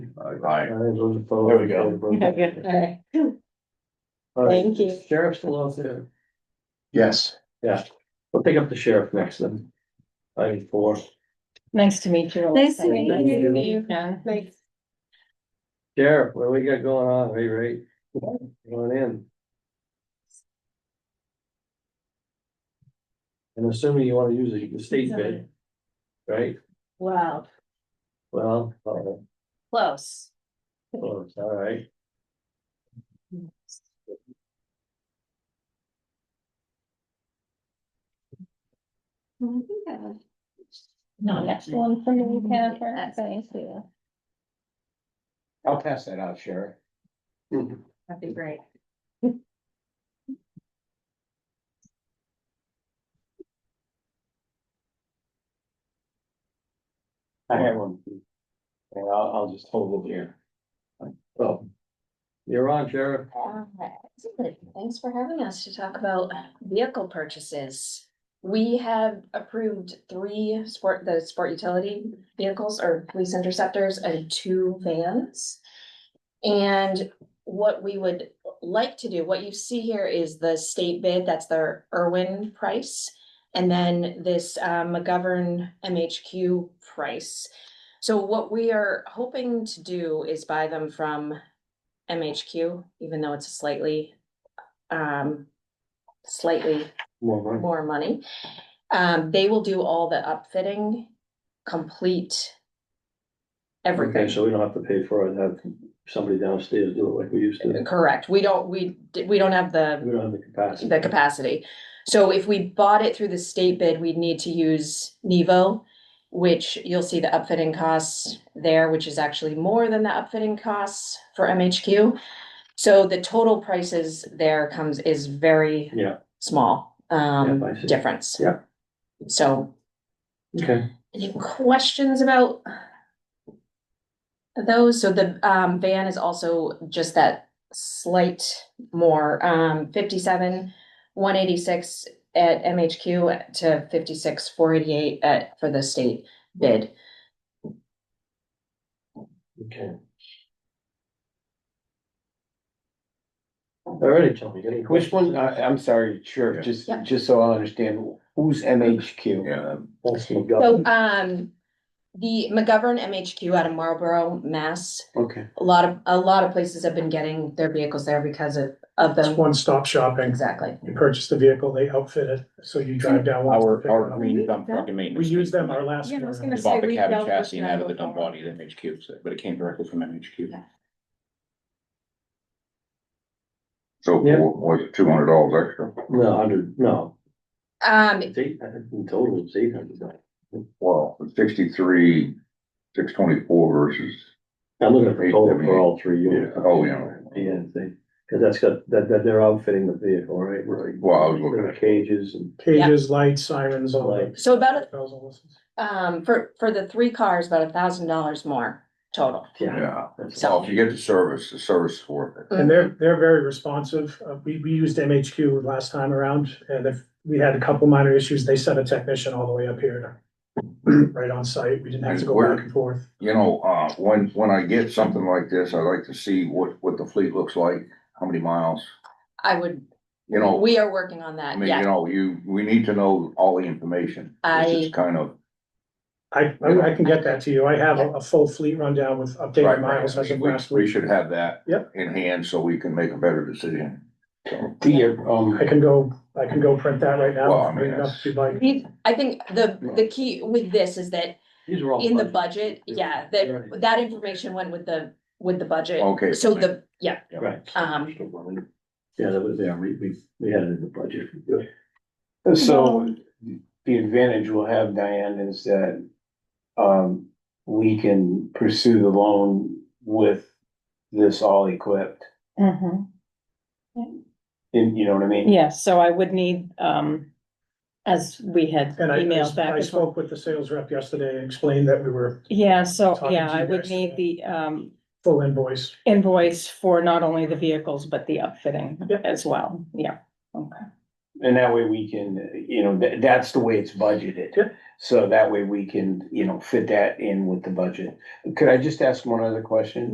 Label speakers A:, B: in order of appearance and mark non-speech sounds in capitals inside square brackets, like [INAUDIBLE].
A: Aye.
B: those opposed.
A: There we go.
C: Yeah, good. All right.
B: All right,
C: Thank you.
B: Sheriff's still out there.
A: Yes.
B: We'll pick up the sheriff next then. Item four.
D: Nice to meet you.
C: Nice to meet
B: Thank
C: you.
B: you.
D: Yeah.
C: Thanks.
B: Sheriff, what do we got going on? Hey, Ray? Come on in. And assuming you wanna use the- the state bid, right?
D: Wow,
B: Well, uh,
D: close.
B: Oh, it's all right.
D: No, that's one for me, Catherine. Thank you.
A: I'll pass that out, Sheriff.
D: That'd be great.
E: I have one. And I'll, I'll just hold it here.
B: Well, you're on, Sheriff.
D: Thanks for having us to talk about vehicle purchases. We have approved three sport, the sport utility vehicles or police interceptors and two vans. And what we would like to do, what you see here is the state bid, that's their Irwin price. And then this uh, McGovern MHQ price. So what we are hoping to do is buy them from MHQ, even though it's slightly, um, slightly
B: More money.
D: more money. Um, they will do all the upfitting, complete
B: Okay,
D: everything.
B: so we don't have to pay for it, and have somebody downstairs do it like we used to.
D: Correct. We don't, we, we don't have the,
B: We don't have the capacity.
D: the capacity. So if we bought it through the state bid, we'd need to use Nevo, which you'll see the upfitting costs there, which is actually more than the upfitting costs for MHQ. So the total prices there comes, is very
B: Yeah.
D: small,
B: Yeah, I
D: um,
B: see.
D: difference.
B: Yeah.
D: So
B: Okay,
D: Any questions about those? So the um van is also just that slight more um fifty-seven, one eighty-six at MHQ to fifty-six, four eighty-eight at for the state bid.
B: okay. Already, Tony, any questions?
E: Which one, I, I'm sorry, sure, just,
D: Yeah.
E: just so I understand, who's MHQ?
A: Yeah.
D: So um the McGovern MHQ out of Marlboro, Mass,
E: Okay.
D: a lot of a lot of places have been getting their vehicles there because of of
F: It's
D: the
F: one-stop shopping.
D: exactly.
F: You purchase the vehicle, they outfit it, so you drive down. once to
E: Our,
F: pick it
E: our
F: up.
E: green dump truck and
F: We
E: maintenance.
F: use them our last.
C: Yeah, I was
F: year.
C: gonna
E: Bought
C: say,
E: the
C: we
E: cab
C: dealt with
E: chassis and
C: them
E: out of the dump
C: before.
E: body, the MHQ, so- but it came directly from MHQ.
A: So
B: Yeah.
A: what, two hundred dollars extra?
B: No, hundred, no,
D: Um
B: it's eight, I think in total it's eight hundred.
A: Well, sixty-three, six twenty-four versus,
B: I'm looking for total for all three units.
A: Yeah, oh, yeah.
B: Yeah, see, cause that's got, that, that they're outfitting the vehicle, right? Right.
A: well, I was looking at,
B: Cages and.
F: Cages, lights, sirens, all that.
D: so about a
F: Bells and whistles.
D: Um, for, for the three cars, about a thousand dollars more total.
A: yeah.
B: that's-
A: Well, if you get the service, the service is worth it.
F: And they're,
C: Mm-hmm.
F: they're very responsive. Uh, we, we used MHQ last time around, and if we had a couple minor issues, they sent a technician all the way up here. to- [CLEARS THROAT] Right on site. We didn't have to go back and forth.
A: You know, uh, when, when I get something like this, I like to see what, what the fleet looks like, how many miles,
D: I would,
A: you know.
D: we are working on
A: I
D: that,
A: mean,
D: yeah.
A: you know, you, we need to know all the information. This
D: I,
A: is kind of,
F: I, I I can get that to you. I have a, a full fleet rundown with
A: right,
F: updated miles as
A: right,
F: of
A: we,
F: last
A: we
F: week.
A: should have that.
F: Yep.
A: In hand, so we can make a better decision. So,
E: The, um,
F: I can go, I can go print that right now.
A: Well, I mean,
F: Bring it up If you'd like.
D: I think the, the key with this is that
B: These
A: Oh,
B: are all.
D: in the
B: budget.
D: budget,
B: Yeah.
D: yeah, that,
B: Right.
D: that information went with the, with the budget.
A: Okay.
D: So the, yeah,
B: Right.
D: um,
B: Yeah, that was, yeah, we, we, we had it in the budget.
E: So the advantage we'll have, Diane, is that um, we can pursue the loan with this all equipped.
G: Mhm.
E: And you know what I mean?
G: Yeah, so I would need, um, as we had
F: And I,
G: emailed back.
F: I
G: as well.
F: spoke with the sales rep yesterday and explained that we were
G: Yeah, so,
F: Talking
G: yeah,
F: to you
G: I would
F: guys.
G: need the, um,
F: full invoice.
G: invoice for not only the vehicles, but the upfitting
F: Yep.
G: as well. Yeah, okay.
E: And that way we can, you know, tha- that's the way it's budgeted.
F: Yep.
E: So that way we can, you know, fit that in with the budget. Could I just ask one other question?